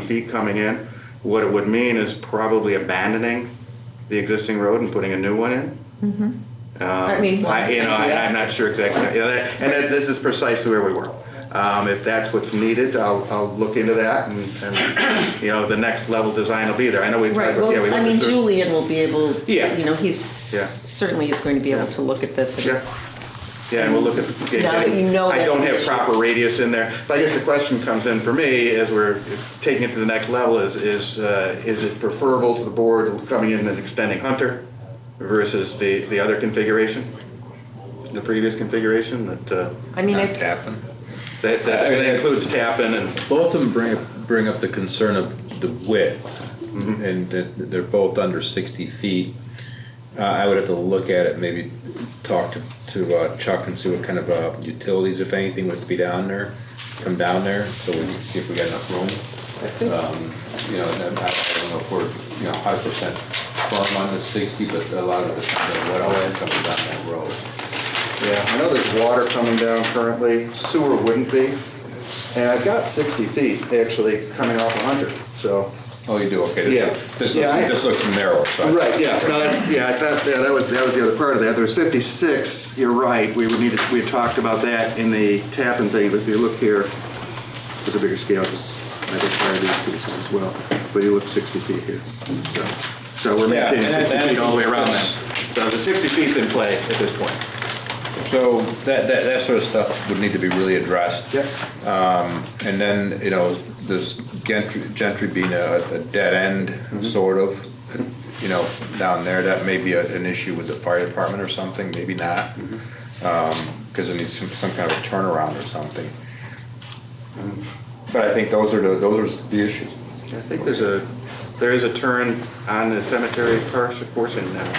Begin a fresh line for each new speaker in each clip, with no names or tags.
feet coming in. What it would mean is probably abandoning the existing road and putting a new one in.
I mean,
Um, I, you know, and I'm not sure exactly, you know, that- and that- this is precisely where we were. Um, if that's what's needed, I'll, I'll look into that and, and, you know, the next level design will be there. I know we've.
right,
yeah, we
well, I
looked
mean,
at cer-
Julian will be able,
Yeah.
you know, he's,
Yeah.
certainly is going to be able to look at this. and-
Yeah, yeah, and we'll look at. yeah,
Now that you know
I
that's
don't
the
have
issue.
proper radius in there. So I guess the question comes in for me, as we're taking it to the next level, is, is, uh, is it preferable to the board coming in and extending Hunter versus the, the other configuration? The previous configuration that, uh,
I mean,
Not
I,
tapping.
that, that that includes Tappan and,
Both of them bring, up- bring up the concern of the width,
Mm-hmm.
and that they're both under 60 feet. Uh, I would have to look at it, maybe talk to, to uh, Chuck and see what kind of uh, utilities, if anything, would be down there, come down there, so we can see if we got enough room. Um, You know, and I I don't know if we're, you know, 100% firm on the 60, but a lot of the time, the well ends up down that road.
yeah, I know there's water coming down currently, sewer wouldn't be. And I've got 60 feet actually coming off of Hunter, so.
Oh, you do, okay. this-
Yeah.
This
Yeah, I-
looks, this looks narrow, so. I-
Right, yeah, no, that's, yeah, I thought, yeah, that was, that was the other part of that. There was 56, you're right, we would need, to- we had talked about that in the Tappan thing, but if you look here, it's a bigger scale, because I think part of these pieces as well, but you look 60 feet here. So- So we're
Yeah,
maintaining
and that-
60
that
feet all the way around
is-
that. So the 60 feet's in play at this point.
So that, that, that sort of stuff would need to be really addressed.
Yeah.
And then, you know, this gentry, gentry being a, a dead
Mm-hmm.
end, sort of, you know, down there, that may be a- an issue with the fire department or something, maybe not.
Mm-hmm.
Because it needs some, some kind of turnaround or something.
Mm-hmm.
But I think those are the, those are the issues.
I think there's a, there is a turn on the cemetery par- portion now.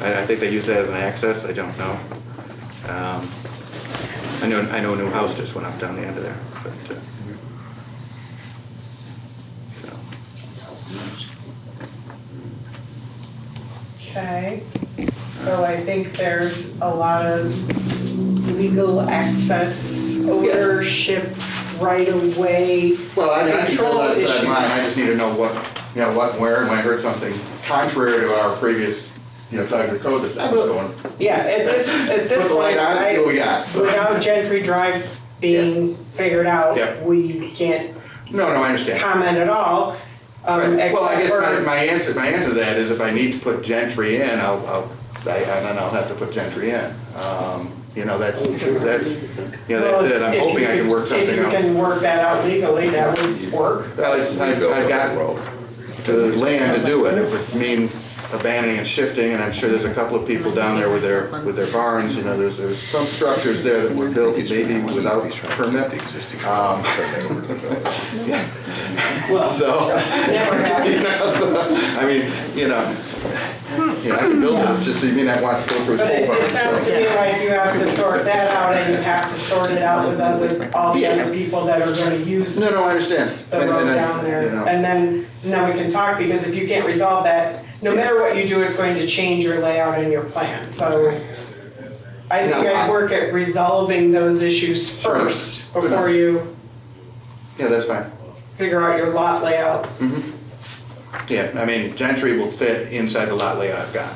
I, I think they use that as an access, I don't know. Um, I know, I know a new house just went up down the end of there, but, uh, so,
Okay, so I think there's a lot of legal access, ownership, right of way,
Well, I mean, I can
control
pull that aside
issues.
mine, I just need to know what, you know, what, and where, and when I heard something contrary to our previous, you know, type of code that's actually going.
Yeah, at this, at this
Put the light
point,
on and see what we
I,
got.
without Gentry Drive being figured
Yep.
out, we can't
No, no, I understand.
comment at all,
Right.
um,
Well, I
except
guess my,
for,
my answer, my answer to that is if I need to put gentry in, I'll, I'll, I, and then I'll have to put gentry in. Um, You know, that's, that's, you know, that's it,
well,
I'm
if
hoping I can
you,
work
if
something
you
out.
can work that out legally, that would work.
Well, it's, I've, I've got the land to do it, it would mean abandoning and shifting, and I'm sure there's a couple of people down there with their, with their barns, you know, there's, there's some structures there that were built maybe without permit. Um,
Well,
So.
never
You
happens.
know, so, I mean, you know, you know, I can build it, it's just that you may not want to go through a
But
full
it,
barn,
it sounds to
so.
me like you have to sort that out and you have to sort it out with others, all the other people that are gonna use the
No, no, I understand. And-
road
and I-
down
you
there.
know,
And then, and then we can talk, because if you can't resolve that, no matter what you do, it's going to change your layout and your plan, so. I think
Yeah.
I'd work at resolving those issues
Sure.
first, before you
Yeah, that's fine.
figure out your lot layout.
Mm, Yeah, I mean, Gentry will fit inside the lot layout I've got,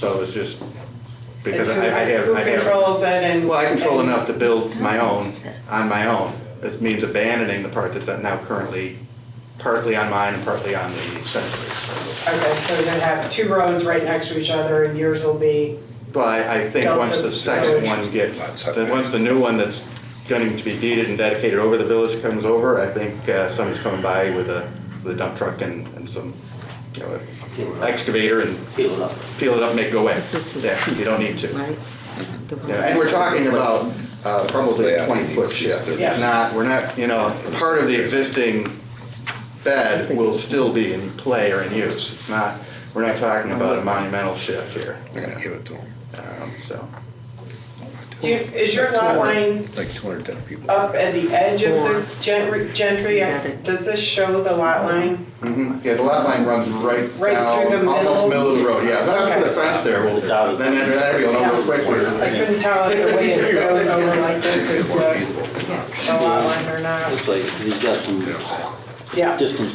so it's just,
It's
because
who,
I I have, I
who
have.
controls it and.
Well, I control
and-
enough to build my own, on my own. It means abandoning the part that's now currently partly on mine and partly on the cemetery.
Okay, so you're gonna have two roads right next to each other and yours will be,
But I I think
Delta
once the second
Village.
one gets, then once the new one that's going to be deeded and dedicated over the village comes over, I think uh, somebody's coming by with a, with a dump truck and, and some, you know, excavator and
Peel it up.
peel it up, and make it go away.
this is his
Yeah, you don't need
piece,
to.
right? The
Yeah, And we're talking about uh, probably a twenty-foot shift. It's
Yes.
not, we're not, you know, part of the existing bed will still be in play or in use. It's not, we're not talking about a monumental shift here. you know.
give it to them,
Um, So.
do you, is your lot line
like 210 people.
up at the edge of
Or-
the gen- gentry,
Got it.
does this show the lot line?
Mhm. Yeah, the lot line runs right
Right
down,
through the
almost
middle?
middle of the road, yeah. That's
Okay.
the fence there. Well,
The dotted-
Then, then everybody will know real quick where
I
it is.
couldn't tell if the way it goes over like this is the, the lot line or not.
Looks like he's got some
Yeah.
distance